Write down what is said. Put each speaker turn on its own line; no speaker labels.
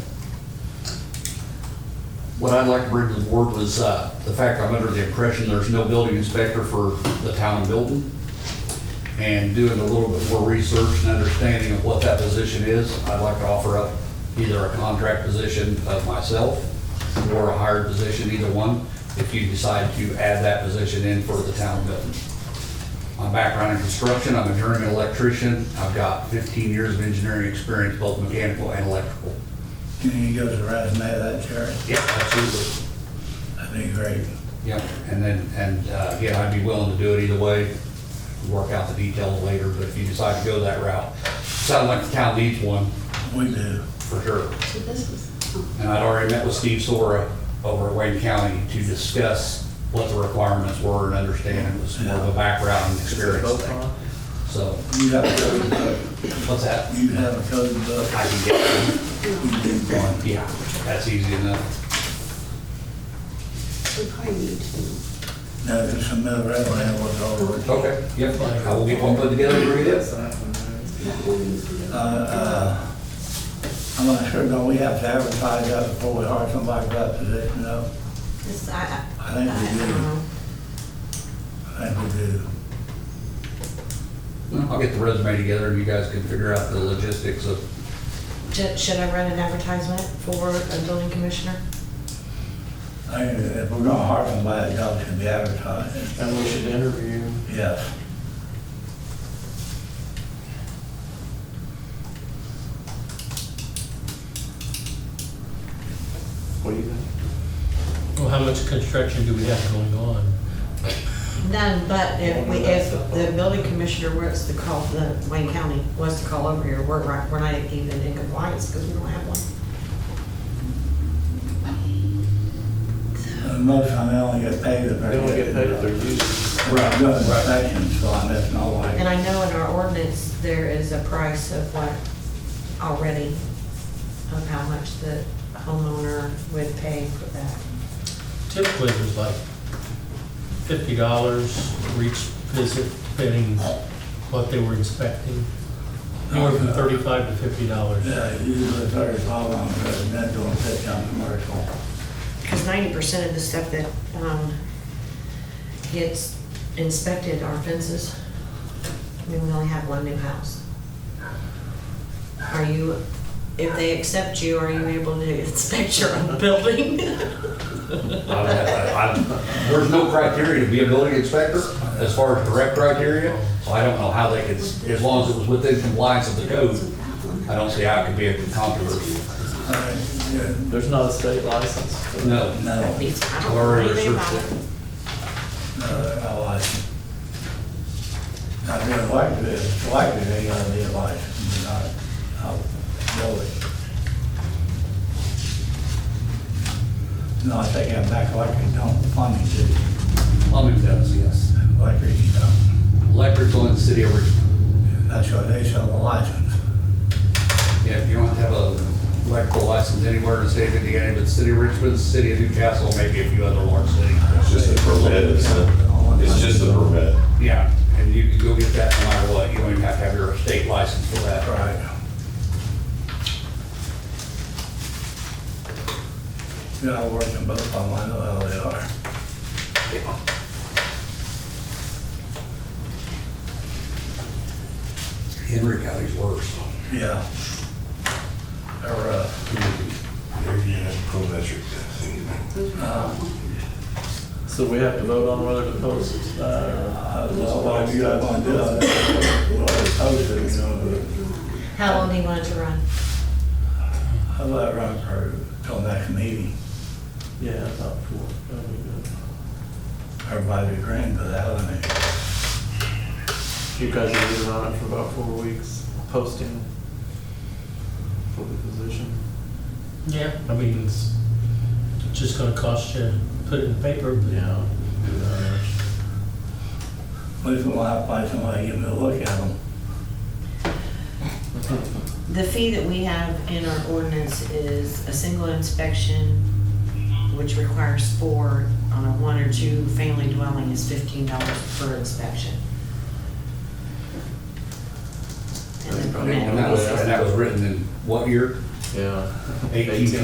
What I'd like to bring to the board was uh, the fact I'm under the impression there's no building inspector for the town of Milton. And doing a little bit more research and understanding of what that position is, I'd like to offer up either a contract position of myself or a hired position, either one, if you decide to add that position in for the town of Milton. My background in construction, I'm a journeyman electrician. I've got 15 years of engineering experience, both mechanical and electrical.
Can you go to the resume of that, Jerry?
Yeah, absolutely.
That'd be great.
Yep, and then, and uh, again, I'd be willing to do it either way, work out the details later, but if you decide to go that route, sounds like the town needs one,
We do.
for sure.
So this was, oh,
And I'd already met with Steve Sora over at Wayne County to discuss what the requirements were and understand it was more of a background and experience thing. So,
You have a code book.
what's that?
You have a code book.
I can get
We do one.
one, yeah, that's easy enough.
we probably need to,
Now, there's some other resume was over.
Okay, yep, I will get one put together and bring it in.
that one needs to
Uh, uh, I'm not sure, don't we have to advertise that before we hire somebody for that position, though?
This, I,
I think we do. I think we do.
I'll get the resume together and you guys can figure out the logistics of
Should should I run an advertisement for a building commissioner?
I, if we're gonna hire somebody, that job should be advertised.
And we should interview.
Yes.
What do you think?
Well, how much construction do we have going on?
None, but if we, if the building commissioner was to call, the Wayne County was to call over here, we're, right- we're not even in compliance because we don't have one.
And Most of them they only get paid if they're.
They don't get paid if they're used.
Right, doing inspections, so I'm just not
And
like,
I know in our ordinance, there is a price of what already, of how much the homeowner would pay for that.
Typically, there's like fifty dollars for each visit, depending what they were expecting. Anywhere from thirty-five to fifty dollars.
yeah, usually thirty-five on residential and fifty on commercial.
Because ninety percent of the stuff that um, gets inspected are fences. I mean, we only have one new house. Are you, if they accept you, are you able to inspect your own building?
I- I- I- There's no criteria to be a building inspector as far as direct criteria, so I don't know how they could, as long as it was within compliance of the code, I don't see how it could be a controversy.
All right, yeah,
There's not a state license.
No,
no,
I
I've
don't know
already
anything
researched
about
it.
it.
no, I like it. I really like this, I like it, they gotta be a license, not, I'll go it. No, I take that back, like it don't, plumbing too,
Plumbing does, yes.
like it, you know,
Electrical in the city of Richmond.
that's why they sell the license.
Yeah, if you don't have a electrical license anywhere in the state of Indiana, but the city of Richmond, the city of Newcastle, maybe a few other large cities.
It's just a permit, isn't it? It's just a permit.
Yeah, and you can go get that no matter what, you don't even have to have your state license for that.
Right. Yeah, I work in both of them, I know how they are.
Henry County's worse.
Yeah. They're, uh,
So we have to vote on whether to post it. uh,
I don't know what you guys want to do. I don't know what I told you, you know,
How long do you want it to run?
but I let Ron her till next meeting.
Yeah, about four. That'll be good.
Everybody agreeing to that, I mean.
You guys have been on it for about four weeks, posting for the position.
Yeah. I mean, it's just gonna cost you, put it in the paper, but uh,
Yeah.
At least we'll have to find somebody to give me a look at them.
The fee that we have in our ordinance is a single inspection, which requires four on a one or two family dwelling is fifteen dollars per inspection. And the
And
permit
that was,
is-
and that was written in what year?
Yeah.
18.